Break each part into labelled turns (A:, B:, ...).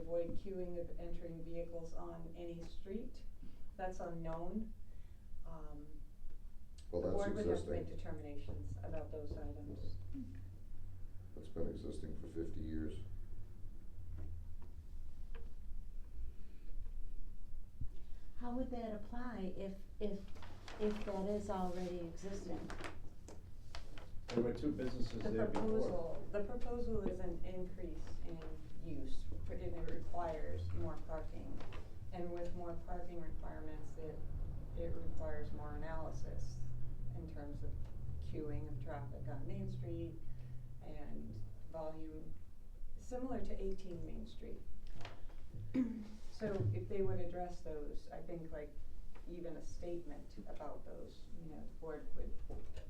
A: avoid queuing of entering vehicles on any street. That's unknown. Um,
B: Well,
A: The board would have
B: that's
A: to
B: existing.
A: make determinations about those items.
B: That's been existing for fifty years.
C: How would that apply if, if, if that is already existing?
D: There were two businesses
A: The
D: there before.
A: proposal, the proposal is an increase in use, but it requires more parking. And with more parking requirements, it, it requires more analysis in terms of queuing of traffic on Main Street and volume, similar to eighteen Main Street. So if they would address those, I think like even a statement about those, you know, the board would,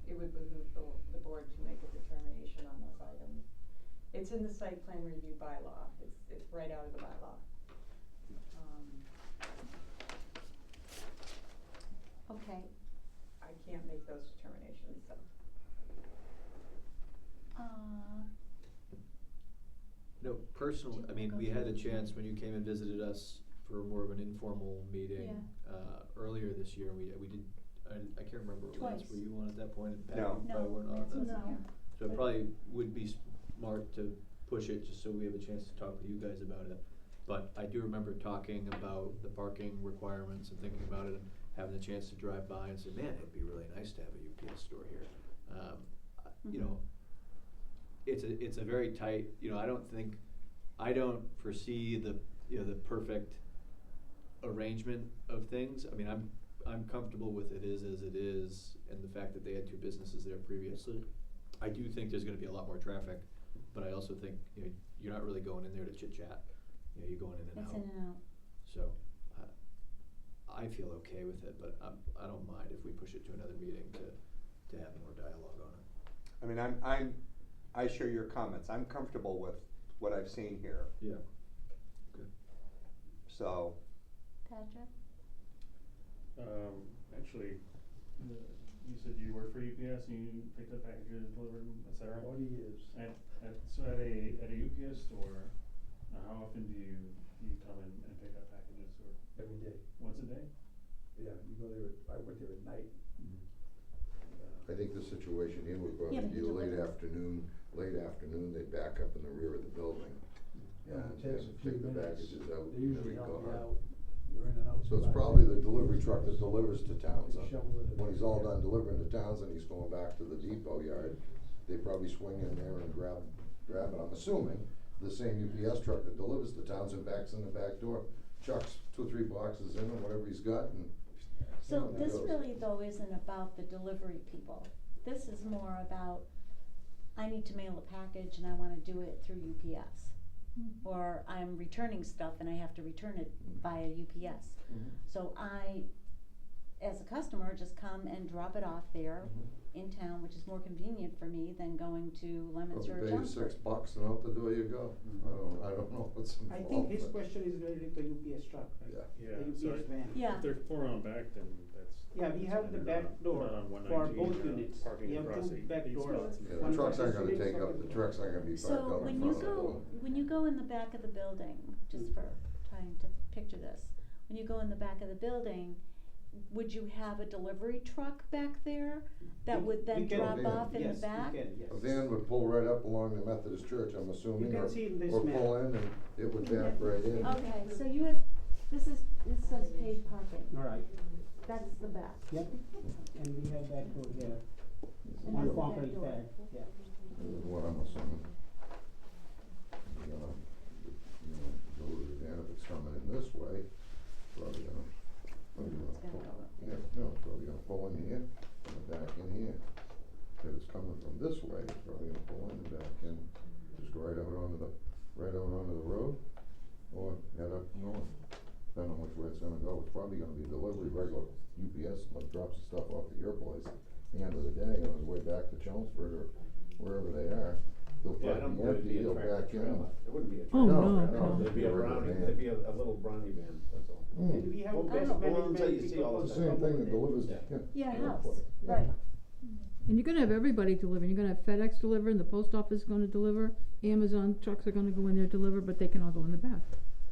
A: it would behoove the, the board to make a determination on those items. It's in the site plan review bylaw, it's, it's right out of the bylaw. Um,
C: Okay,
A: I can't make those determinations, so.
C: uh,
E: No, personally, I mean, we had a chance when you came and visited us for more of an informal meeting uh, earlier this year, and we, we did, I, I can't remember what it was.
C: Twice.
E: Were you on at that point? And Pat
B: No.
E: probably
C: no,
E: weren't on
C: Matt's
E: that.
C: not
F: No.
C: here.
E: So it probably would be smart to push it, just so we have a chance to talk with you guys about it. But I do remember talking about the parking requirements and thinking about it, and having the chance to drive by and say, man, it'd be really nice to have a UPS store here. Um, I- You know, it's a, it's a very tight, you know, I don't think, I don't foresee the, you know, the perfect arrangement of things. I mean, I'm, I'm comfortable with it is as it is, and the fact that they had two businesses there previously. I do think there's gonna be a lot more traffic, but I also think, you know, you're not really going in there to chit chat. You know, you're going in and out.
C: It's in and out.
E: So, I, I feel okay with it, but I'm, I don't mind if we push it to another meeting to, to have more dialogue on it.
G: I mean, I'm, I'm, I share your comments. I'm comfortable with what I've seen here,
E: Yeah.
G: so.
C: Patrick?
F: Um, actually, uh, you said you worked for UPS and you picked up packages, delivered them, et cetera.
D: Forty years.
F: At, at, so at a, at a UPS store, now how often do you, do you come in and pick up packages or
D: Every day.
F: once a day?
D: Yeah, you go there, I work there at night.
B: I think the situation here would probably
C: Yeah, but
B: be
C: he
B: late
C: delivers.
B: afternoon, late afternoon, they back up in the rear of the building.
D: Yeah,
B: and-
D: it takes
B: and
D: a few
B: Take the
D: minutes.
B: packages out. and
D: They
B: we
D: usually
B: go
D: help you
B: home.
D: out. You're in and out.
B: So it's
D: by-
B: probably the delivery truck that delivers to Townsend.
D: Shovel it in.
B: When he's all done delivering to Townsend, he's going back to the depot yard. They probably swing in there and grab, grab it, I'm assuming. The same UPS truck that delivers to Townsend backs in the back door, chucks two or three boxes in and whatever he's got and.
C: So
B: and
C: this
B: goes.
C: really though isn't about the delivery people. This is more about, I need to mail a package and I wanna do it through UPS. Or I'm returning stuff and I have to return it via UPS.
D: Mhm.
C: So I, as a customer, just come and drop it off there in town, which is more convenient for me than going to Lemons
B: Probably
C: or
B: pay you six
C: Chelmsford.
B: bucks and out the door you go. I
D: Mm-hmm.
B: don't, I don't know what's
H: I
B: involved.
H: think his
B: but-
H: question is related to UPS truck, right?
B: Yeah.
F: Yeah,
H: The
F: so
H: UPS van.
C: Yeah.
F: if they're four on back, then that's.
H: Yeah, we have the
F: they're not-
H: back door
F: they're not on
H: for
F: 119,
H: both
F: they're
D: uh,
F: not
H: units.
F: Parking
H: We have
F: across
H: two
F: eight
H: back
F: eight
H: doors.
F: spots.
B: Yeah, the trucks aren't gonna take up, the trucks aren't gonna be parked
C: So
B: out in
C: when
B: front
C: you
B: of the
C: go,
B: building.
C: when you go in the back of the building, just for trying to picture this, when you go in the back of the building, would you have a delivery truck back there that
H: We-
C: would
H: we
C: then
H: can-
C: drop
B: Van.
C: off in the back?
H: Yes, we
B: A
H: can, yes.
B: van would pull right up along the Methodist church, I'm assuming,
H: can
B: or,
H: see in this
B: or
H: map.
B: pull in and it would back right in.
C: Okay, so you have, this is, this says paid parking,
H: All right,
C: that's the back.
H: yep, and we have that door here,
C: And
H: on
C: that's the back
H: concrete
C: door.
H: pad, yeah.
B: is what I'm assuming. You know, you know, go to the van if it's coming in this way, probably gonna, probably gonna
C: It's gonna
B: pull-
C: go up
B: yeah, no, probably gonna pull in here and then back in here. If it's coming from this way, it's probably gonna pull in and back in, just go right out onto the, right out onto the road, or head up north. Depending on which way it's gonna go, it's probably gonna be delivery, regular UPS, like drops the stuff off at your place. At The end of the day, on his way back to Chelmsford or wherever they are, they'll
D: Yeah, I don't
B: probably empty,
D: think it'd be a
B: he'll back
D: tractor trailer.
B: in.
D: It wouldn't be a
B: Oh, no,
D: tractor.
B: no.
D: It'd be a
B: Get rid of
D: brownie,
B: the van.
D: it'd be a, a little brownie van, that's all.
H: And
B: Mm.
H: we have
D: Well,
H: best
D: well, until you
H: management
D: see
H: because of
D: all this
B: It's the
H: the
B: same thing that
H: accommodation.
B: delivers.
D: Yeah.
C: Yeah,
B: Yeah.
C: house, right.
F: And you're gonna have everybody delivering, you're gonna have FedEx delivering, the post office is gonna deliver, Amazon trucks are gonna go in there deliver, but they can all go in the back.